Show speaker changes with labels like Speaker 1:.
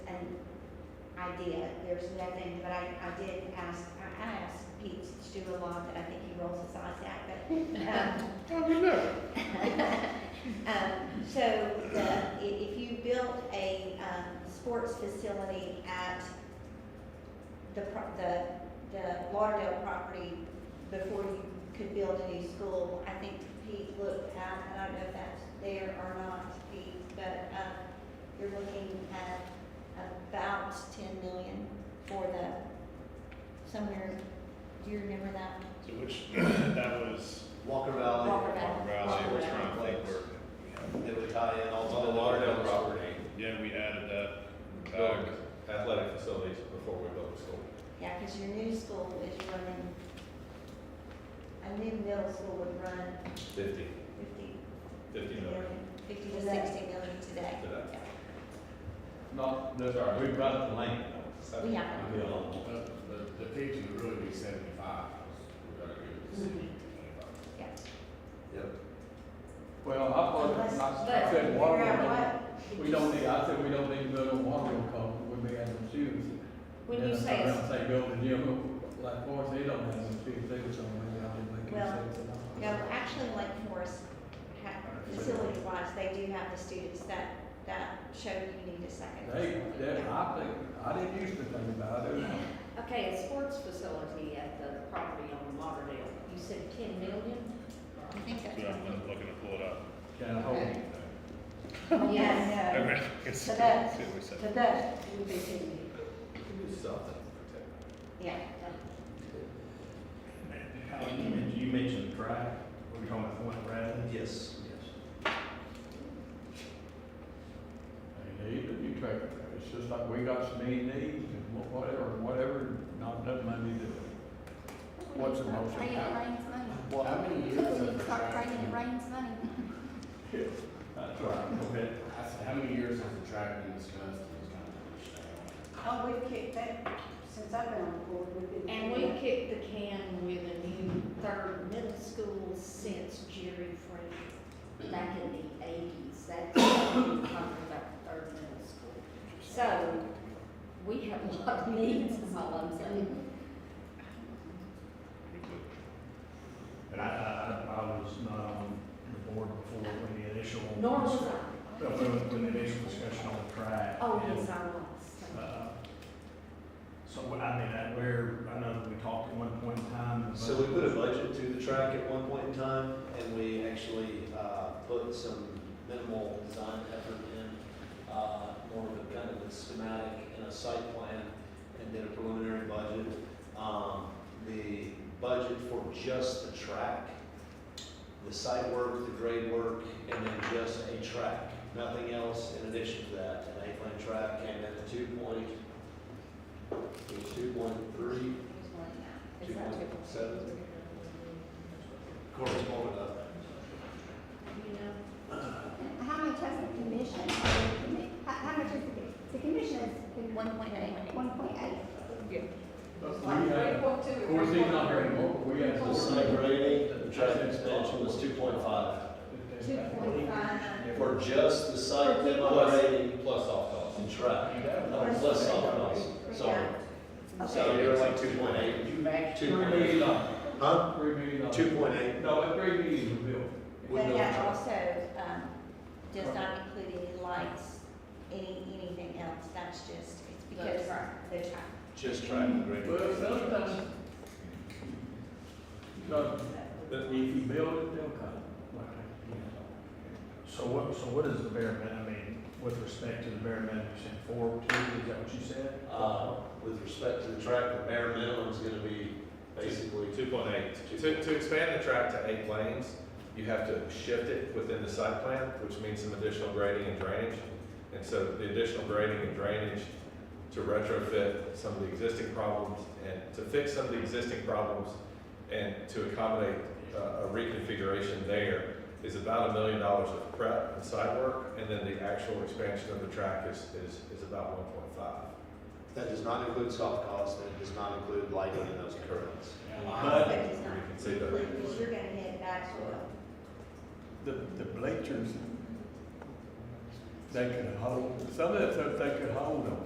Speaker 1: I did, there's nothing, but I, I did ask, I, I asked Pete to do a lot that I think he rolls his eyes at, but, um,
Speaker 2: I would never.
Speaker 1: um, so the, i- if you built a, um, sports facility at the, pro- the, the Lauderdale property before you could build a new school, I think Pete looked at, and I don't know if that's there or not, Pete, but, um, you're looking at about ten million for the, somewhere, do you remember that?
Speaker 2: So which, that was
Speaker 3: Walker Valley.
Speaker 1: Walker Valley.
Speaker 2: Walker Valley, we're trying to think where,
Speaker 3: It would tie in
Speaker 4: It's
Speaker 3: also.
Speaker 4: on the Lauderdale property,
Speaker 2: yeah, we added that
Speaker 4: uh,
Speaker 2: back.
Speaker 4: athletic facilities before we built the school.
Speaker 1: Yeah, because your new school is running, a new middle school would run
Speaker 4: Fifty.
Speaker 1: fifty
Speaker 4: Fifty million
Speaker 1: million, fifty to sixty million today.
Speaker 4: today.
Speaker 5: Not,
Speaker 4: That's all right, we've got the length though.
Speaker 1: We have
Speaker 4: We'll be along.
Speaker 5: the, the, the teaching would really be seventy-five, because we're gonna give the city twenty-five.
Speaker 1: Yeah.
Speaker 3: Yep.
Speaker 6: Well, I
Speaker 1: Unless-
Speaker 6: thought, I-
Speaker 1: but
Speaker 6: I said
Speaker 1: figure
Speaker 6: water,
Speaker 1: out
Speaker 6: bill.
Speaker 1: what-
Speaker 6: we don't need, I said we don't need to build on water bill because we may have some shoes.
Speaker 7: When you say,
Speaker 6: Then I say build a gym, like Forest, they don't have some shoes, they were somewhere out there making
Speaker 1: Well,
Speaker 6: sense. and all.
Speaker 1: No, actually, Lake Forest, ha- facility-wise, they do have the students that, that show you need a second.
Speaker 6: They, they,
Speaker 1: Yeah.
Speaker 6: I think, I didn't used to think about it,
Speaker 7: okay, a sports facility at the property on Lauderdale, you said ten million?
Speaker 1: I think that's.
Speaker 2: So I'm looking to pull it up.
Speaker 6: can I hold it?
Speaker 7: Yes.
Speaker 1: Yeah,
Speaker 2: Okay, I guess-
Speaker 7: So that's-
Speaker 2: see what we said.
Speaker 7: But that would be ten million.
Speaker 4: We can do something to protect.
Speaker 1: Yeah.
Speaker 5: Oh,
Speaker 4: You mentioned track, we're talking about Fort Bradley.
Speaker 3: Yes,
Speaker 6: I mean, even you take, it's just like we got some main needs and wha- whatever, whatever, not enough money to, what's the motion?
Speaker 8: Pray it rains money.
Speaker 5: Well, how many years?
Speaker 8: We
Speaker 5: has
Speaker 8: need
Speaker 5: the
Speaker 8: to start
Speaker 5: track
Speaker 8: praying it
Speaker 5: been-
Speaker 8: rains money.
Speaker 6: That's right.
Speaker 5: Okay, I said, how many years has the track been discussed and was kind of pushed down?
Speaker 9: Oh, we've kicked that, since I've been on the board, we've been.
Speaker 7: And we kicked the can with a new third middle school since Jerry Frazier, back in the eighties, that's when we talked about the third middle school. So, we have a lot of needs, is all I'm saying.
Speaker 10: But I, I, I was not on the board before when the initial.
Speaker 7: Nor was
Speaker 10: No,
Speaker 7: I.
Speaker 10: When, when the initial discussion on the track.
Speaker 7: Oh,
Speaker 10: and,
Speaker 7: yes, I was.
Speaker 10: uh, So, what- I mean, I, where, I know we talked at one point in time.
Speaker 3: So we put a budget to the track at one point in time, and we actually, uh, put some minimal design effort in, uh, more of a kind of a schematic and a site plan, and then a preliminary budget. Um, the budget for just the track, the site work, the grade work, and then just a track, nothing else in addition to that. An eight-lane track came in at two point, it was two point three
Speaker 1: There's one now.
Speaker 3: Two point seven. Correspondent of
Speaker 6: Uh,
Speaker 7: You know,
Speaker 8: How much has the commission, how, how much is the, the commission is?
Speaker 1: One point eight.
Speaker 8: One point eight.
Speaker 6: But we had, of course, he's not here anymore, but we had.
Speaker 3: The site rating, the track expansion was two point five.
Speaker 8: Two point five.
Speaker 3: For just the site demo rating
Speaker 4: Plus off costs.
Speaker 3: and track, no, plus soft costs, sorry. So
Speaker 1: Okay.
Speaker 3: you're like two point eight,
Speaker 5: You matched
Speaker 6: Three million dollars,
Speaker 3: huh?
Speaker 6: three million dollars.
Speaker 3: Two point eight.
Speaker 6: No, but three million was built.
Speaker 3: With
Speaker 1: But
Speaker 3: no
Speaker 1: that
Speaker 3: truck.
Speaker 1: also, um, does not include any lights, any, anything else, that's just, it's because the time.
Speaker 3: Just track and grade.
Speaker 6: Well, sometimes. Because
Speaker 4: But
Speaker 6: if you build it, they'll come, like, you know.
Speaker 10: So what, so what is the bare minimum, I mean, with respect to the bare minimum, you said four, two, is that what you said?
Speaker 3: Uh, with respect to the track, the bare minimum is gonna be basically
Speaker 4: Two point eight. To, to expand the track to eight lanes, you have to shift it within the site plan, which means some additional grading and drainage. And so the additional grading and drainage to retrofit some of the existing problems and to fix some of the existing problems and to accommodate uh, a reconfiguration there is about a million dollars of prep and site work. And then the actual expansion of the track is, is, is about one point five.
Speaker 3: That does not include soft costs, and it does not include lighting and those currents.
Speaker 1: But. does
Speaker 4: We
Speaker 1: not
Speaker 4: can see that.
Speaker 1: include, because you're gonna hit back to a-
Speaker 6: the, the bleachers, they could hold, some of that stuff they could hold them.